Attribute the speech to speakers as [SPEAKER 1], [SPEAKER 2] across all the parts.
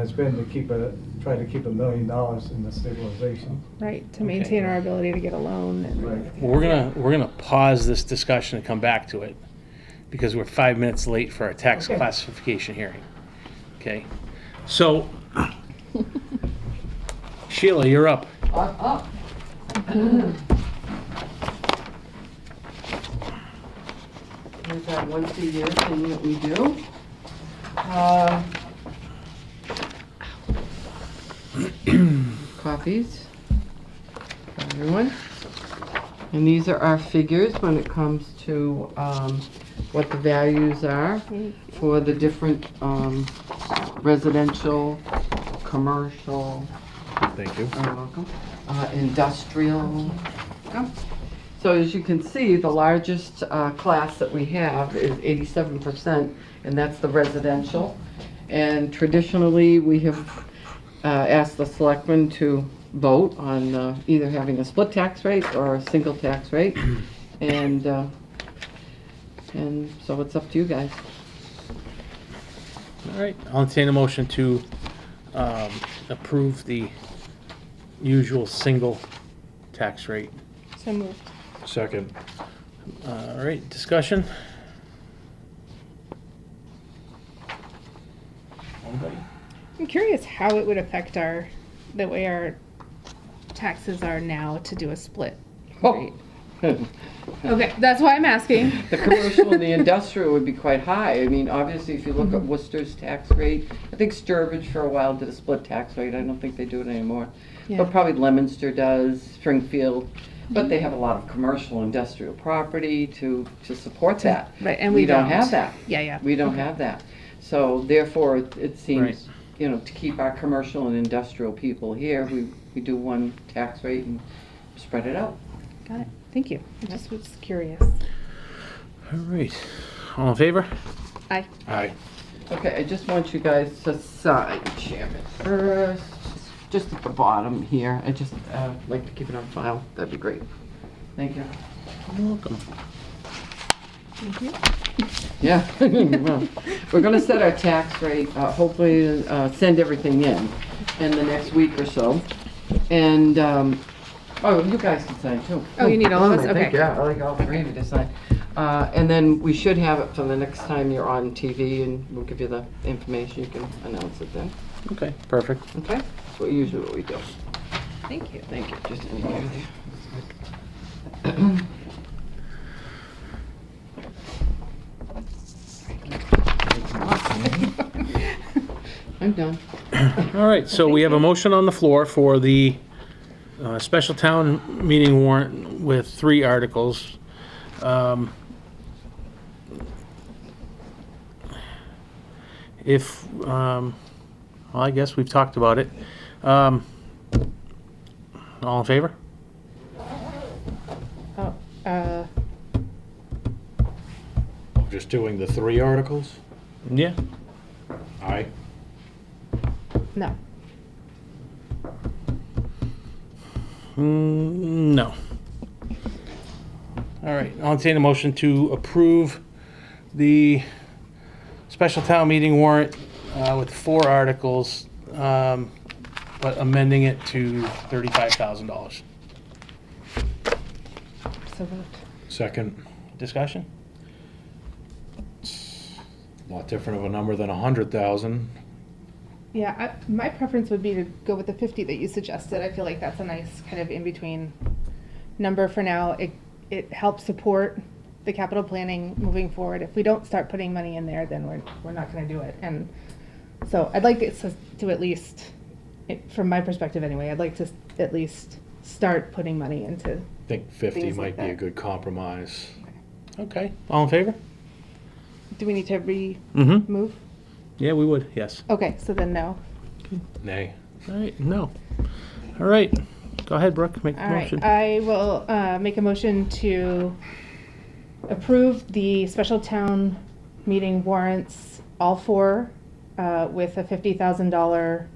[SPEAKER 1] has been to keep a, try to keep a million dollars in the stabilization.
[SPEAKER 2] right, to
[SPEAKER 3] Okay.
[SPEAKER 2] maintain our ability to get a loan and.
[SPEAKER 1] Right.
[SPEAKER 3] Well, we're gonna, we're gonna pause this discussion and come back to it, because we're five minutes late for our tax
[SPEAKER 1] Okay.
[SPEAKER 3] classification hearing. Okay, so Sheila, you're up.
[SPEAKER 4] I'm up. There's that once a year thing that we do. Uh, Copies for everyone. And these are our figures when it comes to um, what the values are for the different um, residential, commercial,
[SPEAKER 5] Thank you.
[SPEAKER 4] you're welcome. Uh, Industrial. Welcome. So as you can see, the largest uh, class that we have is 87%, and that's the residential. And traditionally, we have uh, asked the selectmen to vote on uh, either having a split tax rate or a single tax rate. And, uh, and so it's up to you guys.
[SPEAKER 3] All right, I'll entertain a motion to um, approve the usual single tax rate.
[SPEAKER 2] So moved.
[SPEAKER 5] Second.
[SPEAKER 3] Uh, All right, discussion? Anybody?
[SPEAKER 2] I'm curious how it would affect our, the way our taxes are now to do a split. rate. Okay, that's why I'm asking.
[SPEAKER 4] The commercial and the industrial would be quite high. I mean, obviously, if you look
[SPEAKER 2] Mm-hmm.
[SPEAKER 4] at Worcester's tax rate, I think Sturbridge for a while did a split tax rate. I don't think they do it anymore.
[SPEAKER 2] Yeah.
[SPEAKER 4] But probably Lemonster does, Springfield. But
[SPEAKER 2] Mm-hmm.
[SPEAKER 4] they have a lot of commercial industrial property to, to support that.
[SPEAKER 2] Right, and we don't.
[SPEAKER 4] have that.
[SPEAKER 2] Yeah, yeah.
[SPEAKER 4] We don't have that. So therefore, it it
[SPEAKER 3] Right.
[SPEAKER 4] seems, you know, to keep our commercial and industrial people here, we, we do one tax rate and spread it out.
[SPEAKER 2] Got it. Thank you. I just was curious.
[SPEAKER 3] All right, all in favor?
[SPEAKER 2] Aye.
[SPEAKER 3] Aye.
[SPEAKER 4] Okay, I just want you guys to sign, Chairman, first, just at the bottom here. I just uh, like to keep it on file. That'd be great. Thank you.
[SPEAKER 3] You're welcome.
[SPEAKER 4] Yeah, well, we're gonna set our tax rate, uh, hopefully, uh, send everything in, in the next week or so. And, um, oh, you guys can sign too.
[SPEAKER 2] Oh, you need all of us?
[SPEAKER 4] I think,
[SPEAKER 2] Okay.
[SPEAKER 4] Yeah, I like all three of you to sign. Uh, and then we should have it for the next time you're on TV, and we'll give you the information, you can announce it then,
[SPEAKER 3] Okay, perfect.
[SPEAKER 4] okay? That's what usually what we do.
[SPEAKER 2] Thank you.
[SPEAKER 4] Thank you, just anywhere there. I'm done.
[SPEAKER 3] All right, so we have a motion on the floor for the uh, special town meeting warrant with three articles. Um, If, um, well, I guess we've talked about it. Um, All in favor?
[SPEAKER 2] Oh, uh,
[SPEAKER 5] Just doing the three articles?
[SPEAKER 3] Yeah.
[SPEAKER 5] Aye.
[SPEAKER 2] no.
[SPEAKER 3] Mm, No. All right, I'll entertain a motion to approve the special town meeting warrant uh, with four articles, um, but amending it to $35,000.
[SPEAKER 2] So moved.
[SPEAKER 5] Second,
[SPEAKER 3] Discussion?
[SPEAKER 5] a lot different of a number than a hundred thousand.
[SPEAKER 2] Yeah, I, my preference would be to go with the fifty that you suggested. I feel like that's a nice kind of in-between number for now. It, it helps support the capital planning moving forward. If we don't start putting money in there, then we're, we're not gonna do it. And so I'd like it to- to at least, it- from my perspective anyway, I'd like to at least start putting money into,
[SPEAKER 5] I think fifty
[SPEAKER 2] Things like
[SPEAKER 5] might be a
[SPEAKER 2] that.
[SPEAKER 5] good compromise.
[SPEAKER 3] Okay, all in favor?
[SPEAKER 2] do we need to remove?
[SPEAKER 3] Mm-hmm. Yeah, we would, yes.
[SPEAKER 2] Okay, so then no.
[SPEAKER 5] Nay.
[SPEAKER 3] All right, no. All right, go ahead, Brooke, make the
[SPEAKER 2] All right,
[SPEAKER 3] motion.
[SPEAKER 2] I will uh, make a motion to approve the special town meeting warrants, all four, uh, with a $50,000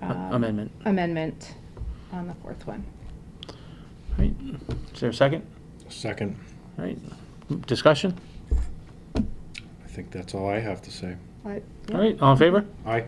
[SPEAKER 3] A-
[SPEAKER 2] um,
[SPEAKER 3] Amendment.
[SPEAKER 2] amendment on the fourth one.
[SPEAKER 3] All right, is there a second?
[SPEAKER 5] Second,
[SPEAKER 3] All right, discussion?
[SPEAKER 5] I think that's all I have to say.
[SPEAKER 2] All right.
[SPEAKER 3] All right, all in favor?
[SPEAKER 5] Aye.